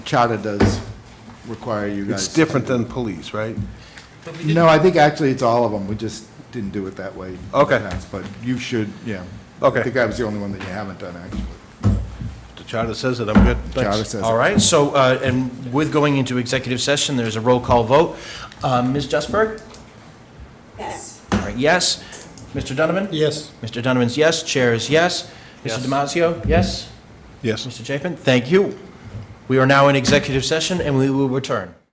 charter does require you guys. It's different than police, right? No, I think actually it's all of them. We just didn't do it that way. in the Okay. past, But you should, yeah. Okay. I think I was the only one that you haven't done, actually. The charter says it, I'm good, thanks. Charter says it. All right, so, uh, and with going into executive session, there's a roll call vote. Uh, Ms. Justburg? Yes. All right, yes. Mr. Donovan? Yes. Mr. Donovan's yes, chair is yes. Mr. Damasio, yes. Yes. Mr. Chapin, thank you. We are now in executive session, and we will return.